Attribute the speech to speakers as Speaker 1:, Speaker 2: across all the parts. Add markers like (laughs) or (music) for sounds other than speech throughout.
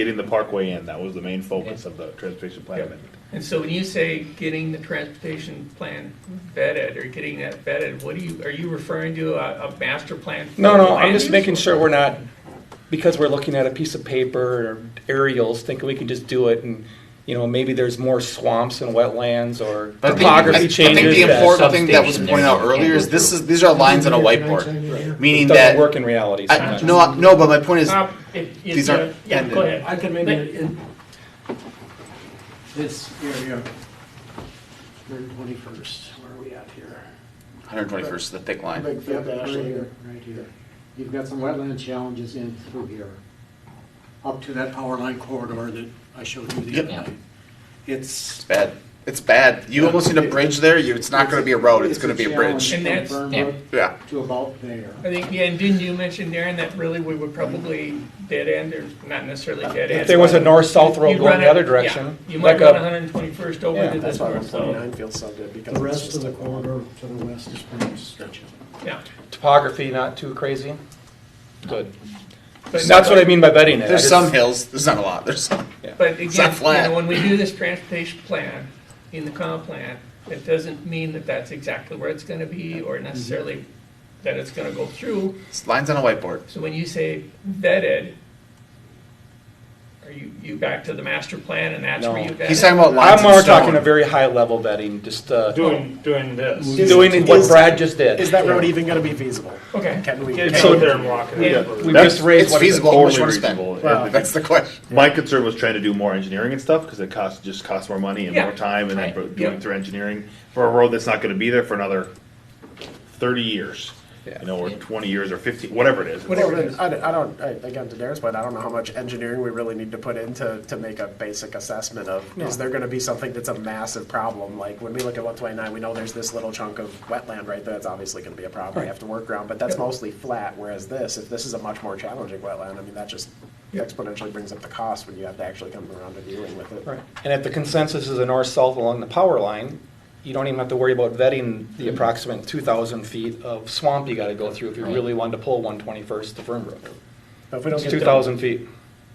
Speaker 1: Getting the parkway in, that was the main focus of the transportation plan amendment.
Speaker 2: And so when you say getting the transportation plan vetted or getting that vetted, what do you, are you referring to a, a master plan? for
Speaker 3: No, no,
Speaker 2: land
Speaker 3: I'm just
Speaker 2: use?
Speaker 3: making sure we're not, because we're looking at a piece of paper or aerials, thinking we can just do it and, you know, maybe there's more swamps and wetlands or
Speaker 4: I think-
Speaker 3: topography
Speaker 4: I think
Speaker 3: changes
Speaker 4: the
Speaker 3: that
Speaker 4: important thing that was
Speaker 5: substations
Speaker 4: pointed out
Speaker 5: can't go
Speaker 4: earlier is this
Speaker 5: through.
Speaker 4: is, these are lines on a whiteboard, meaning that,
Speaker 3: doesn't work in reality
Speaker 4: I-
Speaker 3: sometimes.
Speaker 4: no, no, but my point is,
Speaker 2: Uh, it- it's
Speaker 4: These
Speaker 2: a-
Speaker 4: aren't
Speaker 2: Yeah,
Speaker 4: ended.
Speaker 2: go ahead.
Speaker 6: I can maybe, in this area, 121st, where are we at here?
Speaker 4: 121st is the thick line.
Speaker 7: Big fat
Speaker 6: Right
Speaker 7: ash
Speaker 6: here,
Speaker 7: layer.
Speaker 6: right here.
Speaker 7: You've got some wetland challenges in through here.
Speaker 6: Up to that power line corridor that I showed you the
Speaker 4: Yep.
Speaker 6: other night.
Speaker 4: It's
Speaker 6: It's,
Speaker 4: bad. It's bad. You almost need a bridge there. You, it's not going to be a road. It's going to be a bridge.
Speaker 2: And that's-
Speaker 7: challenge from
Speaker 5: yeah.
Speaker 7: Burnwood
Speaker 4: Yeah.
Speaker 7: to about there.
Speaker 2: I think, yeah, and didn't you mention, Darren, that really we would probably dead end, or not necessarily dead end?
Speaker 3: If there was a north-south road
Speaker 2: You'd
Speaker 3: going
Speaker 2: run
Speaker 3: the
Speaker 2: it-
Speaker 3: other
Speaker 2: yeah,
Speaker 3: direction,
Speaker 2: You
Speaker 3: like
Speaker 2: might run
Speaker 3: a,
Speaker 2: hundred and twenty-first over
Speaker 3: Yeah,
Speaker 2: to this one, so,
Speaker 6: feels so good because.
Speaker 7: The rest of the corridor to the west is pretty stretched.
Speaker 2: yeah.
Speaker 3: topography not too crazy. Good.
Speaker 2: But-
Speaker 3: That's what I mean by vetting it. I
Speaker 4: There's
Speaker 3: just-
Speaker 4: some hills. There's not a lot. There's some.
Speaker 2: But
Speaker 4: It's not
Speaker 2: again, you
Speaker 4: flat.
Speaker 2: know, when we do this transportation plan in the comp plan, it doesn't mean that that's exactly where it's gonna be or necessarily that it's gonna go through.
Speaker 4: It's lines on a whiteboard.
Speaker 2: So when you say vetted, are you, you back to the master plan and that's where
Speaker 3: No.
Speaker 2: you vet?
Speaker 4: He's
Speaker 2: it?
Speaker 4: talking about lines
Speaker 3: I'm more
Speaker 4: of stone.
Speaker 3: talking a very high-level vetting, just, uh,
Speaker 8: Doing, doing this.
Speaker 3: doing what Brad just did.
Speaker 6: Is that road even gonna be feasible?
Speaker 2: Okay.
Speaker 6: Can we?
Speaker 8: Get
Speaker 6: can
Speaker 3: So-
Speaker 8: out
Speaker 6: we-
Speaker 8: there and walk it.
Speaker 2: Yeah.
Speaker 8: over.
Speaker 3: We
Speaker 4: That's-
Speaker 3: just raised
Speaker 4: it's
Speaker 3: what is
Speaker 4: feasible. How much you
Speaker 1: Totally
Speaker 4: want to spend?
Speaker 1: reasonable.
Speaker 4: (laughs)
Speaker 6: Wow.
Speaker 4: That's the question.
Speaker 1: My concern was trying to do more engineering and stuff, because it costs, just costs more money and
Speaker 2: Yeah.
Speaker 1: more time, and then
Speaker 2: Right.
Speaker 1: bro-
Speaker 2: Yeah.
Speaker 1: doing through engineering for a road that's not gonna be there for another thirty years.
Speaker 3: Yeah.
Speaker 1: You know, or twenty years, or fifty, whatever it is.
Speaker 2: Whatever.
Speaker 6: Well, then, I, don't- I don't, I, again, to Darren's point, I don't know how much engineering we really need to put into, to make a basic assessment of, is there gonna be something that's a massive problem? Like, when we look at one twenty-nine, we know there's this little chunk of wetland right there, that's obviously gonna be a problem we have to work around, but that's mostly flat, whereas this, if this is a much more challenging wetland, I mean, that just exponentially brings up the cost when you have to actually come around to dealing with it.
Speaker 3: Right. And if the consensus is a north-south along the power line, you don't even have to worry about vetting the approximate 2,000 feet of swamp you got to go through if you
Speaker 5: Right.
Speaker 3: really wanted to pull 121st to Fernbrook.
Speaker 6: But if we don't
Speaker 3: It's
Speaker 6: get
Speaker 3: 2,000 feet.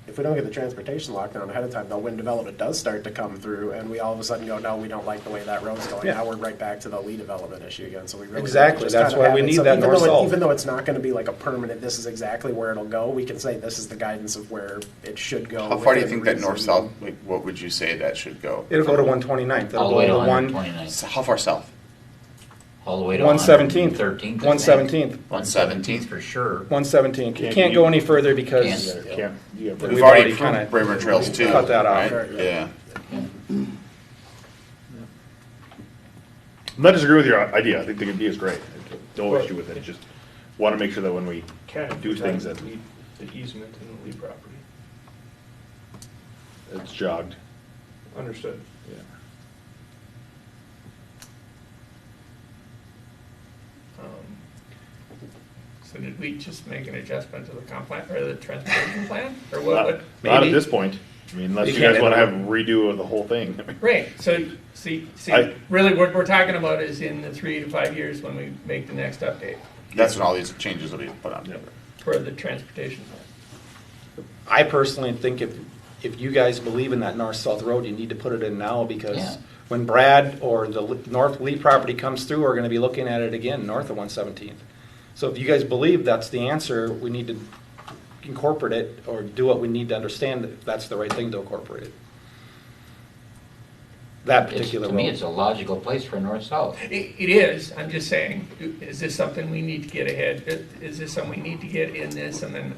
Speaker 6: if we don't get the transportation lockdown ahead of time, though, when development does start to come through, and we all of a sudden go, no, we don't like the way that road's going,
Speaker 3: Yeah.
Speaker 6: now we're right back to the lead development issue again, so we really. need to
Speaker 3: Exactly.
Speaker 6: just
Speaker 3: That's
Speaker 6: kind of
Speaker 3: why
Speaker 6: have
Speaker 3: we
Speaker 6: it.
Speaker 3: need
Speaker 6: So
Speaker 3: that
Speaker 6: even though it-
Speaker 3: north-south.
Speaker 6: Even though it's not gonna be like a permanent, this is exactly where it'll go, we can say this is the guidance of where it should go.
Speaker 4: How far do you
Speaker 6: within
Speaker 4: think that
Speaker 6: reason.
Speaker 4: north-south, like, what would you say that should go?
Speaker 3: It'll go to 129th. It'll
Speaker 5: All the
Speaker 3: go
Speaker 5: way to
Speaker 3: to one-
Speaker 5: 129th.
Speaker 4: So How far south?
Speaker 5: All the way to
Speaker 3: 117th.
Speaker 5: 113th.
Speaker 3: 117th.
Speaker 4: 117th?
Speaker 5: for sure.
Speaker 3: 117th. You
Speaker 1: Can't
Speaker 3: can't
Speaker 1: you-
Speaker 3: go any further because
Speaker 1: You
Speaker 5: Can't.
Speaker 1: can't- you can't-
Speaker 3: We've
Speaker 4: We've already
Speaker 3: already kinda
Speaker 4: approved Braemar Trails too,
Speaker 3: cut that out.
Speaker 4: right? Yeah.
Speaker 1: I'm not disagreeing with your idea, I think the idea is great, no issue with it, just wanna make sure that when we
Speaker 8: Can
Speaker 1: do things that
Speaker 8: protect The easement in the Lee property.
Speaker 1: it's jogged.
Speaker 8: Understood.
Speaker 2: Um, So did we just make an adjustment to the comp plan or the transportation plan or what?
Speaker 1: Not
Speaker 2: what-
Speaker 1: not at
Speaker 3: Maybe.
Speaker 1: this point, I mean, unless
Speaker 3: You
Speaker 1: you guys
Speaker 3: can't.
Speaker 1: wanna have redo of the whole thing. (laughs)
Speaker 2: Right, so, see, see,
Speaker 1: I-
Speaker 2: really what we're talking about is in the three to five years when we make the next update
Speaker 4: That's when all these changes will be put on.
Speaker 1: Yeah.
Speaker 2: for the transportation plan.
Speaker 3: I personally think if, if you guys believe in that north-south road, you need to put it in now because
Speaker 5: Yeah.
Speaker 3: when Brad or the L- North Lee property comes through, we're gonna be looking at it again, north of one seventeenth. So if you guys believe that's the answer, we need to incorporate it or do what we need to understand that that's the right thing to incorporate it. That
Speaker 5: It's-
Speaker 3: particular
Speaker 5: To me,
Speaker 3: road.
Speaker 5: it's a logical place for north-south.
Speaker 2: It, it is, I'm just saying, is this something we need to get ahead, is this something we need to get in this and then?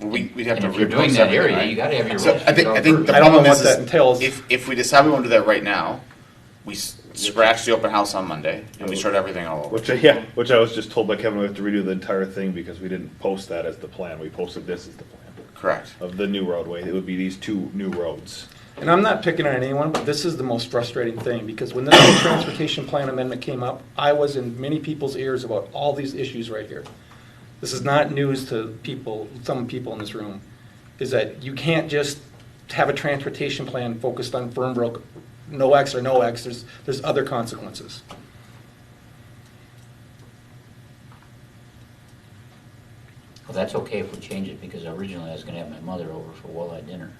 Speaker 4: Well, We, we'd have
Speaker 5: And
Speaker 4: to.
Speaker 5: if you're doing that
Speaker 4: repost everything,
Speaker 5: area,
Speaker 4: right?
Speaker 5: you gotta have your
Speaker 4: So
Speaker 5: roads.
Speaker 4: I think, I think the
Speaker 3: I don't know
Speaker 4: problem is,
Speaker 3: what that
Speaker 4: is
Speaker 3: entails.
Speaker 4: if, if we decide we want to do that right now, we s- scratch the open house on Monday and we start everything all over.
Speaker 1: Which, I- yeah, which I was just told by Kevin, we have to redo the entire thing because we didn't post that as the plan, we posted this as the plan
Speaker 4: Correct.
Speaker 1: of the new roadway, it would be these two new roads.
Speaker 3: And I'm not picking on anyone, but this is the most frustrating thing, because when this whole transportation plan amendment came up, I was in many people's ears about all these issues right here. This is not news to people, some people in this room, is that you can't just have a transportation plan focused on Fernbrook, no X or no X, there's, there's other consequences.
Speaker 5: Well, that's okay if we change it, because originally I was gonna have my mother over for walleye dinner.